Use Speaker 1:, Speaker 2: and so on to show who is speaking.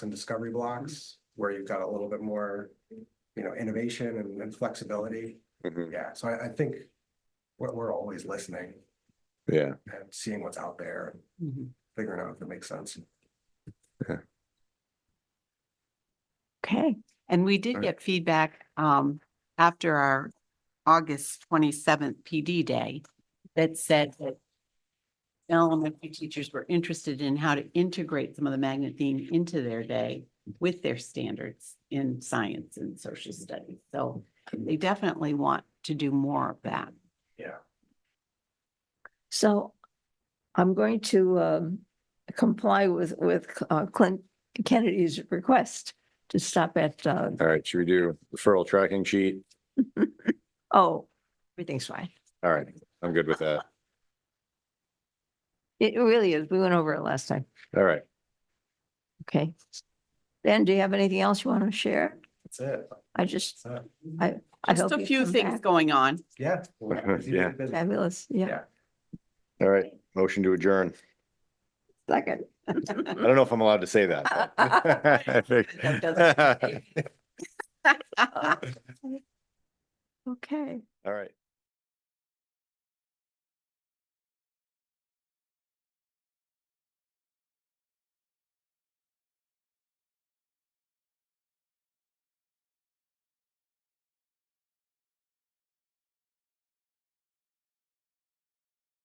Speaker 1: and discovery blocks where you've got a little bit more, you know, innovation and, and flexibility.
Speaker 2: Mhm.
Speaker 1: Yeah, so I, I think we're, we're always listening
Speaker 2: Yeah,
Speaker 1: and seeing what's out there, and figuring out if it makes sense.
Speaker 3: Okay, and we did
Speaker 1: Right.
Speaker 3: get feedback um after our August twenty seventh PD day that said that elementary teachers were interested in how to integrate some of the magnet theme into their day with their standards in science and social studies. So they definitely want to do more of that.
Speaker 1: Yeah.
Speaker 4: So I'm going to um, comply with, with uh, Clint Kennedy's request to stop at, uh,
Speaker 2: all right, should we do referral tracking sheet?
Speaker 4: oh, everything's fine.
Speaker 2: All right, I'm good with that.
Speaker 4: It really is. We went over it last time.
Speaker 2: All right,
Speaker 4: Okay. Ben, do you have anything else you want to share?
Speaker 1: That's it.
Speaker 4: I just,
Speaker 1: That's it.
Speaker 4: I
Speaker 3: Just
Speaker 4: hope
Speaker 3: a
Speaker 4: you
Speaker 3: few
Speaker 4: come
Speaker 3: things
Speaker 4: back.
Speaker 3: going on.
Speaker 1: Yeah.
Speaker 2: Yeah.
Speaker 4: Fabulous. Yeah,
Speaker 1: Yeah.
Speaker 2: all right, motion to adjourn.
Speaker 4: second.
Speaker 2: I don't know if I'm allowed to say that. but- I think-
Speaker 4: Okay.
Speaker 2: All right.